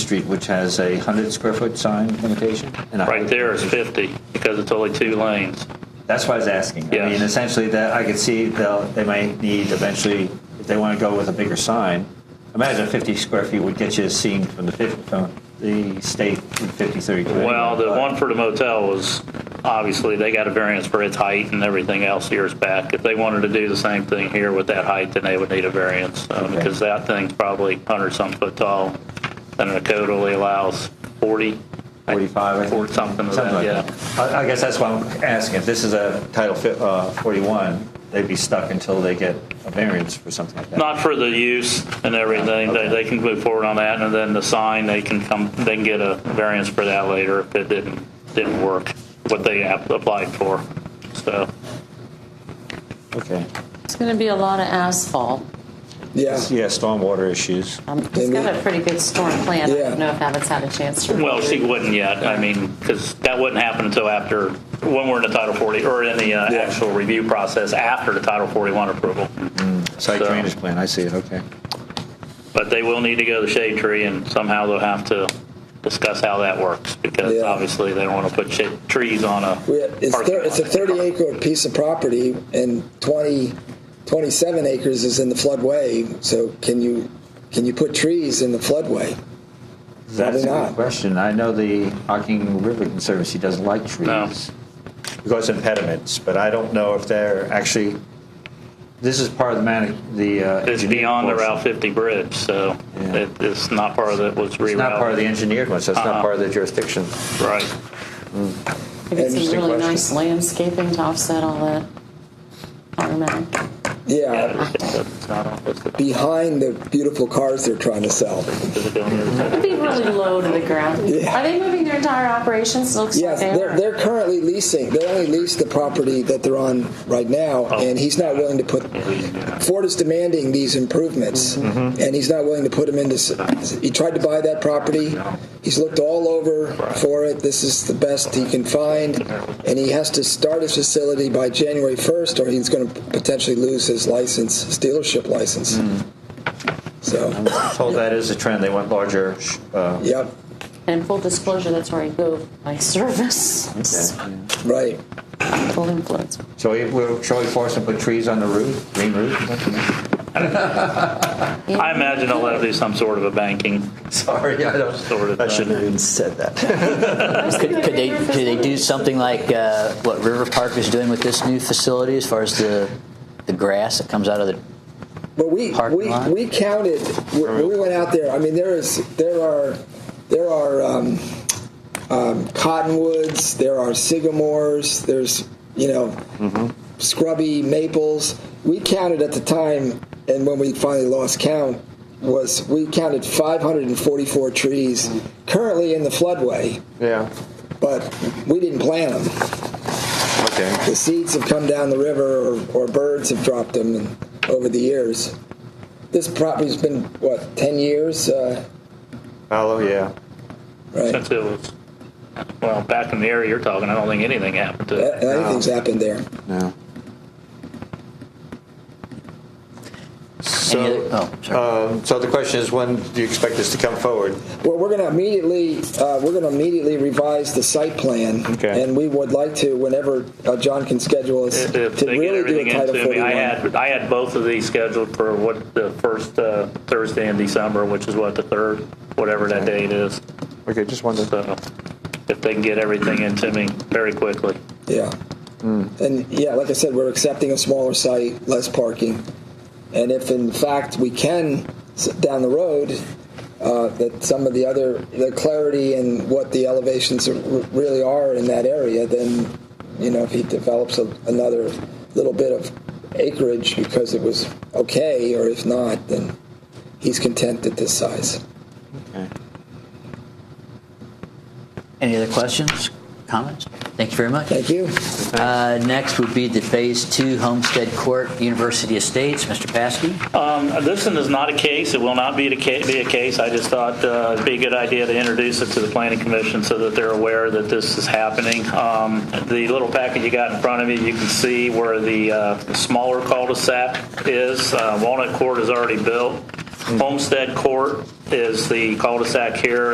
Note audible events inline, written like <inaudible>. Street, which has a 100 square foot sign limitation? and a Right 100 there is 50 because it's only two lanes. That's what I was asking. Yeah. I mean, essentially, that I could see they'll, they might need eventually, if they want to go with a bigger sign, imagine 50 square feet would get you seen from the, fif- from the state in 5032. Well, the But- one for the motel was, obviously, they got a variance for its height and everything else years back. If they wanted to do the same thing here with that height, then they would need a variance, um, Okay. because that thing's probably 100-some foot tall, and the code only allows 40. 45, I think. Or something of that, like yeah. I, I guess that's why I'm asking. If this is a Title fi- uh, 41, they'd be stuck until they get a variance for something like that. Not for the use and everything, they, they can move forward on that, and then the sign, they can come, they can get a variance for that later if it didn't, didn't work, what they app- applied for, so. Okay. It's going to be a lot of asphalt. Yeah. Yeah, stormwater issues. Um, He's got a pretty good storm plan. I Yeah. don't know if Abbott's had a chance to. Well, she wouldn't yet, I mean, because that wouldn't happen until after, when we're in the Title 40, or in the uh, Yeah. actual review process after the Title 41 approval. Site So- drainage plan, I see it, okay. But they will need to go to the shade tree, and somehow they'll have to discuss how that works, because Yeah. obviously they don't want to put shade, trees on a. We had, it's, parking thir- it's a lot. 30 acre piece of property and 20, 27 acres is in the floodway. So can you can you put trees in the floodway? That's a good not. question. I know the Hocking River Conservancy doesn't like trees. Because impediments, but I don't know if they're actually, this is part of the man, the. uh, It's engineered beyond the portion. Route 50 bridge, so Yeah. it- it's not part of that was rerouted. It's not part of the engineered one, so it's not Uh-uh. part of the jurisdiction. Right. We did some Interesting really question. nice landscaping to offset all that. Automatic. Yeah, Yeah, it's- it's not on- it's- behind the beautiful cars they're trying to sell. it's on the other side. It'd be really low to the ground. Yeah. Are they moving their entire operations? Looks Yes, like they they're, are. they're currently leasing. They only lease the property that they're on right now, and he's not willing to put. Ford is demanding these improvements, and he's not willing to put them into. s- He tried to buy that property. He's looked all over for it. This is the best he can find, and he has to start his facility by January 1st, or he's going to potentially lose his license, his dealership license. So, I'm told that is a trend. They want larger. sh- uh, yep, And full disclosure, that's where I go my service. It's right. Full influence. Shall we, we'll- shall we force them to put trees on the roof, green <laughs> roof? I imagine they'll have to do some sort of a banking. Sorry, I Sort don't, of I shouldn't have thing. even said that. Could, could they could they do something like uh, what River Park is doing with this new facility, as far as the the grass that comes out of the? But we Parking we, lot? we counted when we went out there. I mean, there is there are there are um, um, cottonwoods, there are sycamores, there's you know scrubby maples. We counted at the time, and when we finally lost count, was we counted 544 trees currently in the floodway, Yeah, but we didn't plant them <laughs> okay. the seeds have come down the river or, or birds have dropped them and, over the years. This property's been, what, 10 years? Uh, Hollow, yeah. right. Since it was, well, back in the area you're talking, I don't think anything happened to A- it. Anything's happened there. No. any So, other- oh, sorry. um, so the question is, when do you expect this to come forward? Well, we're going to immediately uh, we're going to immediately revise the site plan, Okay. and we would like to whenever uh, John can schedule us If to if they get really do everything a Title into me, 41. I had, I had both of these scheduled for what, the first uh, Thursday in December, which is what, the third, whatever that date is. Okay, just wondered. So if they can get everything into me very quickly. Yeah. And yeah, like I said, we're accepting a smaller site, less parking. And if in fact we can s- down the road, uh, that some of the other the clarity and what the elevations are, r- really are in that area, then you know if he develops a, another little bit of acreage because it was okay, or if not, then he's content at this size. Any other questions, comments? Thank you very much. Thank you. Uh, next would be the Phase Two Homestead Court University Estates, Mr. Paskey. Um, This one is not a case, it will not be a ca- be a case, I just thought uh, it'd be a good idea to introduce it to the planning commission so that they're aware that this is happening. Um, The little packet you got in front of you, you can see where the uh, smaller cul-de-sac is. Uh, Walnut Court is already built. Homestead Court is the cul-de-sac here,